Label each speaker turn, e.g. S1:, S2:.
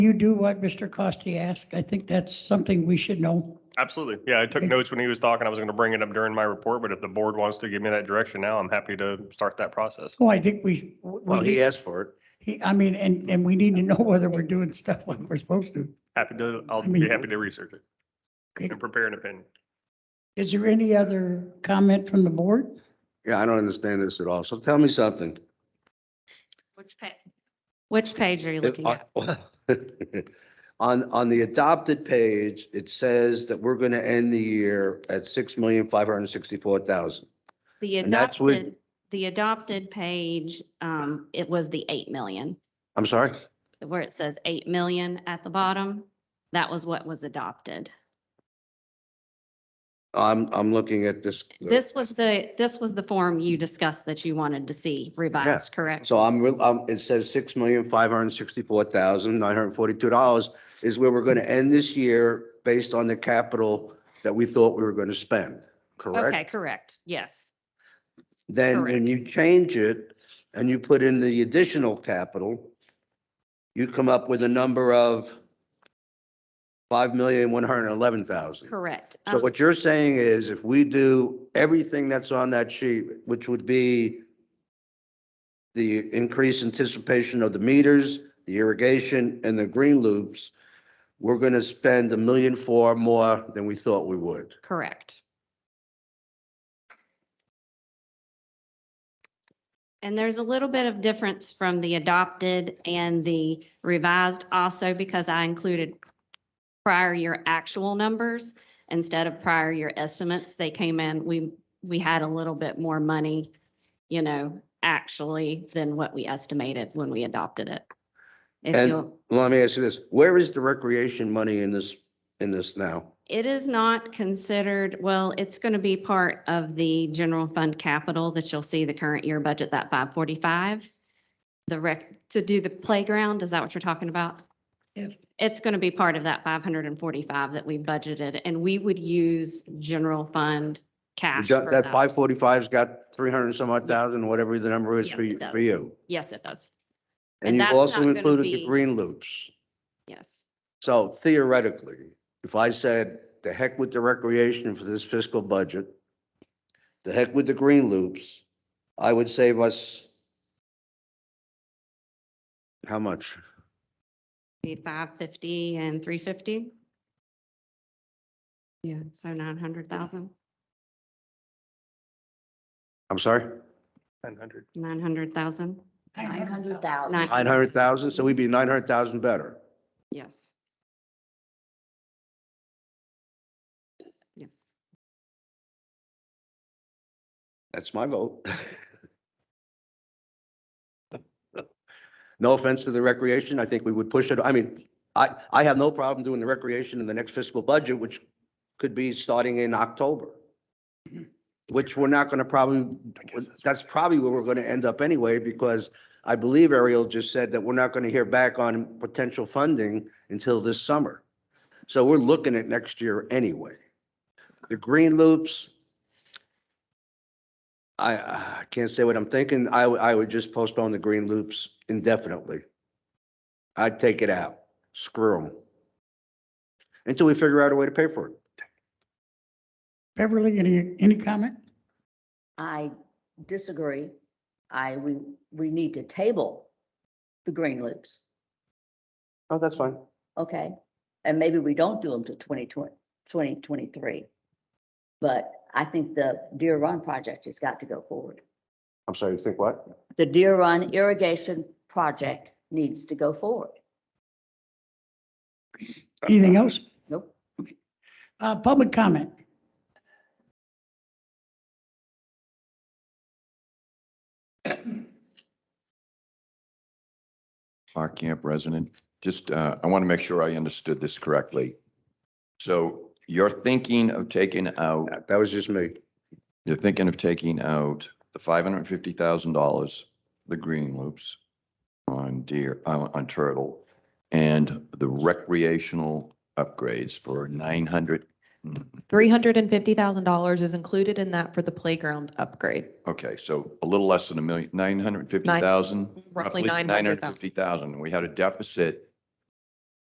S1: you do what Mr. Costi asked? I think that's something we should know.
S2: Absolutely. Yeah, I took
S1: Okay.
S2: notes when he was talking. I was going to bring it up during my report, but if the board wants to give me that direction now, I'm happy to start that process.
S1: Well, Oh, I think we,
S3: Well, he
S1: we,
S3: asked for it.
S1: he- I mean, and, and we need to know whether we're doing stuff like we're supposed to.
S2: Happy to, I'll
S1: I mean-
S2: be happy to research it
S1: Okay.
S2: and prepare an opinion.
S1: Is there any other comment from the board?
S3: Yeah, I don't understand this at all. So tell me something.
S4: Which page? Which page are you looking at?
S3: On, on the adopted page, it says that we're going to end the year at six million, five hundred and sixty-four thousand.
S4: The
S3: and that's with-
S4: adopted, the adopted page, um, it was the eight million,
S3: I'm sorry?
S4: where it says eight million at the bottom. That was what was adopted.
S3: I'm, I'm looking at this.
S4: This was the, this was the form you discussed that you wanted to see revised, correct?
S3: So I'm, real- um, it says six million, five hundred and sixty-four thousand, nine hundred and forty-two dollars is where we're going to end this year based on the capital that we thought we were going to spend, correct?
S4: Okay, correct, yes.
S3: Then when
S4: Correct.
S3: you change it and you put in the additional capital, you come up with a number of five million, one hundred and eleven thousand.
S4: Correct.
S3: So
S4: Um,
S3: what you're saying is if we do everything that's on that sheet, which would be the increased anticipation of the meters, the irrigation and the green loops, we're going to spend a million four more than we thought we would.
S4: Correct. And there's a little bit of difference from the adopted and the revised also because I included prior year actual numbers instead of prior year estimates. They came in, we, we had a little bit more money, you know, actually than what we estimated when we adopted it. If
S3: And-
S4: you'll,
S3: Let me ask you this, where is the recreation money in this, in this now?
S4: It is not considered, well, it's going to be part of the general fund capital that you'll see the current year budget, that five forty-five. The rec, to do the playground, is that what you're talking about?
S1: Yes.
S4: It's going to be part of that five hundred and forty-five that we budgeted, and we would use general fund
S3: The
S4: cash.
S3: ju-
S4: for
S3: That five forty-five's got three hundred and some odd thousand, whatever the number is
S4: Yeah,
S3: for
S4: it
S3: you,
S4: does.
S3: for you.
S4: Yes, it does.
S3: And
S4: And
S3: you've
S4: that's
S3: also
S4: not gonna
S3: included the
S4: be-
S3: green loops.
S4: Yes,
S3: So theoretically, if I said, the heck with the recreation for this fiscal budget, the heck with the green loops, I would save us how much?
S4: be five fifty and three fifty. Yeah, so nine hundred thousand,
S3: I'm sorry?
S2: 900.
S4: nine hundred thousand,
S1: Nine hundred
S4: nine,
S3: Nine hundred thousand? So we'd be nine hundred thousand better.
S4: yes. Yes.
S3: That's my vote. No offense to the recreation, I think we would push it, I mean, I, I have no problem doing the recreation in the next fiscal budget, which could be starting in October. Which we're not gonna probably, that's probably where we're gonna end up anyway, because I believe Ariel just said that we're not gonna hear back on potential funding until this summer. So we're looking at next year anyway. The green loops, I, I can't say what I'm thinking. I, would- I would just postpone the green loops indefinitely. I'd take it out. Screw them. Until we figure out a way to pay for it.
S1: Beverly, any, any comment?
S5: I disagree. I, we, we need to table the green loops,
S3: Oh, that's fine.
S5: okay? And maybe we don't do them to 2020 2023. But I think the Deer Run project has got to go forward.
S3: I'm sorry, you think what?
S5: The Deer Run irrigation project needs to go forward.
S1: Anything else?
S5: Nope.
S1: Uh, public comment?
S6: Clark Camp resident. Just, uh, I want to make sure I understood this correctly. So you're thinking of taking out,
S3: That- That was just me.
S6: you're thinking of taking out the five hundred and fifty thousand dollars, the green loops on deer, on on turtle, and the recreational upgrades for nine hundred.
S7: Three hundred and fifty thousand dollars is included in that for the playground upgrade,
S6: Okay, so a little less than a million, nine hundred and fifty thousand?
S7: roughly nine
S6: Nine
S7: hundred
S6: hundred
S7: thousand.
S6: fifty thousand. We had a deficit